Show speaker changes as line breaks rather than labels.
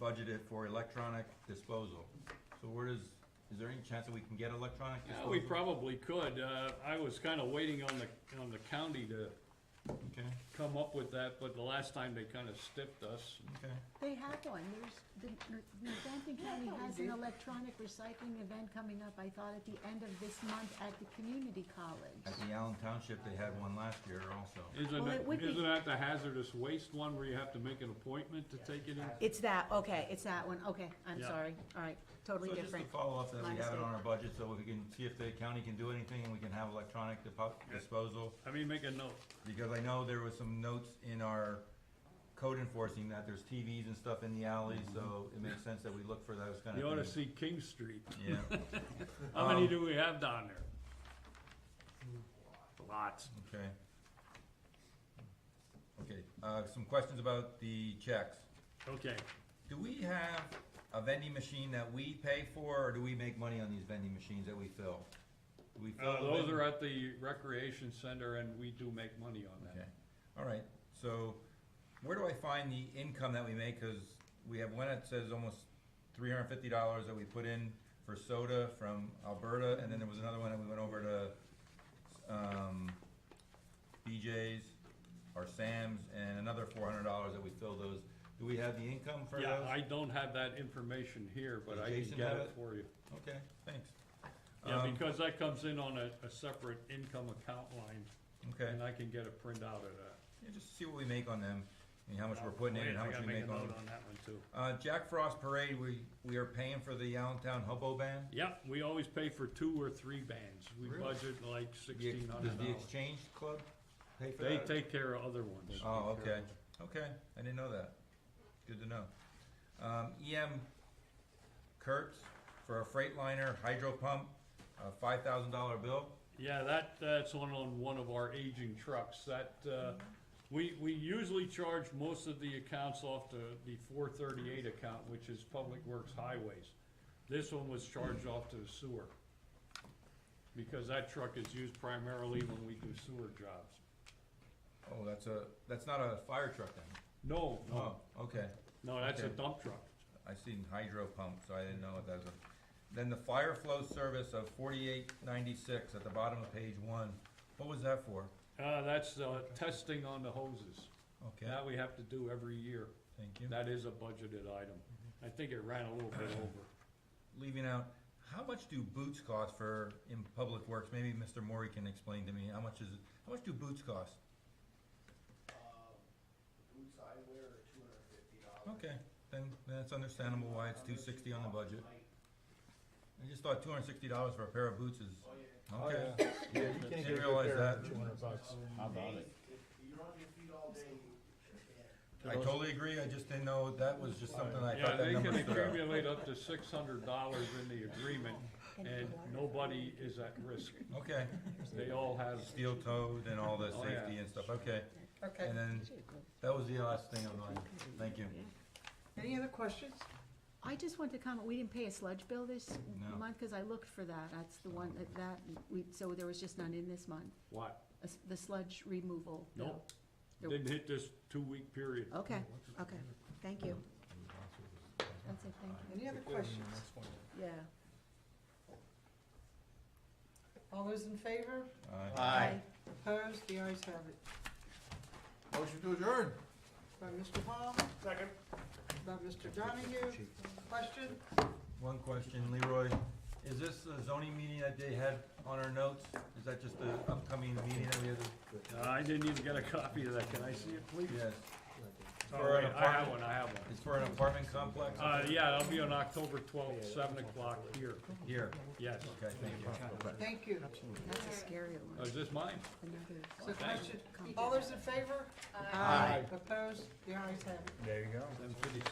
budgeted for electronic disposal. So where does, is there any chance that we can get electronic
Yeah,
disposal?
we probably could. Uh, I was kinda waiting on the, on the county to
Okay,
come up with that, but the last time they kinda stiffed us.
okay.
They have one, there's, the, Northampton County has an electronic recycling event coming up, I thought at the end of this month at the community
At
college.
the Allen Township, they had one last year also.
Isn't
Well, it would
it,
be-
isn't that the hazardous waste one where you have to make an appointment to take it in?
It's that, okay, it's that one, okay, I'm
Yeah.
sorry, all right,
So
totally
just to
different.
follow up, that
My
we have it on
mistake.
our budget, so we can see if the county can do anything, and we can have electronic depo- disposal.
I mean, make a note.
Because I know there was some notes in our code enforcing that there's TVs and stuff in the alley, so it makes sense that we look for those kind
Mm-hmm. You ought to
of things.
see King Street.
Yeah,
How many
Um,
do we have down there? Lots.
okay. Okay, uh, some questions about the checks.
Okay,
Do we have a vending machine that we pay for, or do we make money on these vending machines that we fill? Do we fill?
uh,
the
those
vending-
are at the recreation center and we do make money on
Okay,
that.
all right, so where do I find the income that we make, cause we have one that says almost three hundred and fifty dollars that we put in for soda from Alberta, and then there was another one that we went over to, um, BJ's or Sam's, and another four hundred dollars that we fill those, do we have the income for those?
Yeah, I don't have that information here, but
Does
I can
Jason
get
have
it
it?
for you.
Okay, thanks.
Yeah,
Um,
because that comes in on a, a separate income account line,
Um, Okay,
and I can get a printout of that.
yeah, just see what we make on them, and how much we're putting in
Wait,
and how
I
much
gotta
we make
a
on
note
them.
On that one too.
Uh, Jack Frost Parade, we, we are paying for the Allentown Hobo Band.
Yep, we always pay for two or three bands, we
Really?
budget like
The ex-
sixteen
Does
hundred
the
dollars.
Exchange Club pay for
They
that?
take care of other ones.
Oh, okay, okay, I didn't know that, good to know. Um, EM Kurtz for a Freightliner hydro pump, a five thousand dollar bill.
Yeah, that, that's on, on one of our aging trucks, that, uh, we, we usually charge most of the accounts off to the four thirty-eight account, which is Public Works Highways. This one was charged off to the sewer, because that truck is used primarily when we do sewer jobs.
Oh, that's a, that's not a fire truck then?
No, no,
Oh, okay.
no, that's a
okay.
dump truck.
I seen hydro pump, so I didn't know what that was. Then the fire flow service of forty-eight ninety-six at the bottom of page one, what was that for?
Uh, that's, uh, testing on the hoses,
Okay,
that we have to do every year,
thank you.
that is a budgeted item.
Mm-hmm.
I think it ran a little bit over.
Leaving out, how much do boots cost for, in public works? Maybe Mr. Mori can explain to me, how much is, it? how much do boots cost?
Uh, the boots I wear are two hundred and fifty dollars.
Okay, then, then it's understandable why it's two sixty on the budget. I just thought two hundred and sixty dollars for a pair of boots is,
Oh, yeah.
okay.
Yeah, you can't
Didn't
get a
realize
good pair
that.
for two hundred bucks.
How about it? If you're on your feet all day, you you can't.
I totally agree, I just didn't know, that was just something I
Yeah,
thought that
they
number
can
stood out.
accumulate up to six hundred dollars in the agreement, and nobody is at risk.
Okay,
They all have,
steel toed and all the
Oh, yeah.
safety and stuff, okay.
Okay,
And then, that was the last thing of mine, thank you.
any other questions?
I just want to comment, we didn't pay a sludge bill this
No.
month, cause I looked for that, that's the one, that, that, we, so there was just none in this month,
what?
A s- the sludge removal. bill.
Nope, didn't hit this two-week period.
Okay, okay, thank you. That's it, thank you,
Any other questions?
yeah.
All those in favor?
Aye.
Aye.
Opposed? The ayes have it.
Motion to adjourn.
By Mr. Hall? Second. By Mr. Donahue? Question?
One question, Leroy, is this the zoning meeting that they had on our notes? Is that just the upcoming meeting that we have? to-
Uh, I didn't even get a copy of that, can I see it, please?
Yes,
All
For an
right, I have
apartment?
one, I have one.
it's for an apartment complex
Uh, yeah, it'll be on October twelfth, seven o'clock here,
here,
yes.
okay, thank you.
Thank you.
That's a scary
Oh,
one,
Is this mine?
another.
So question,
Thank you.
all those in favor? Aye. Opposed? The ayes have it.
There you go.
Seven fifty-six.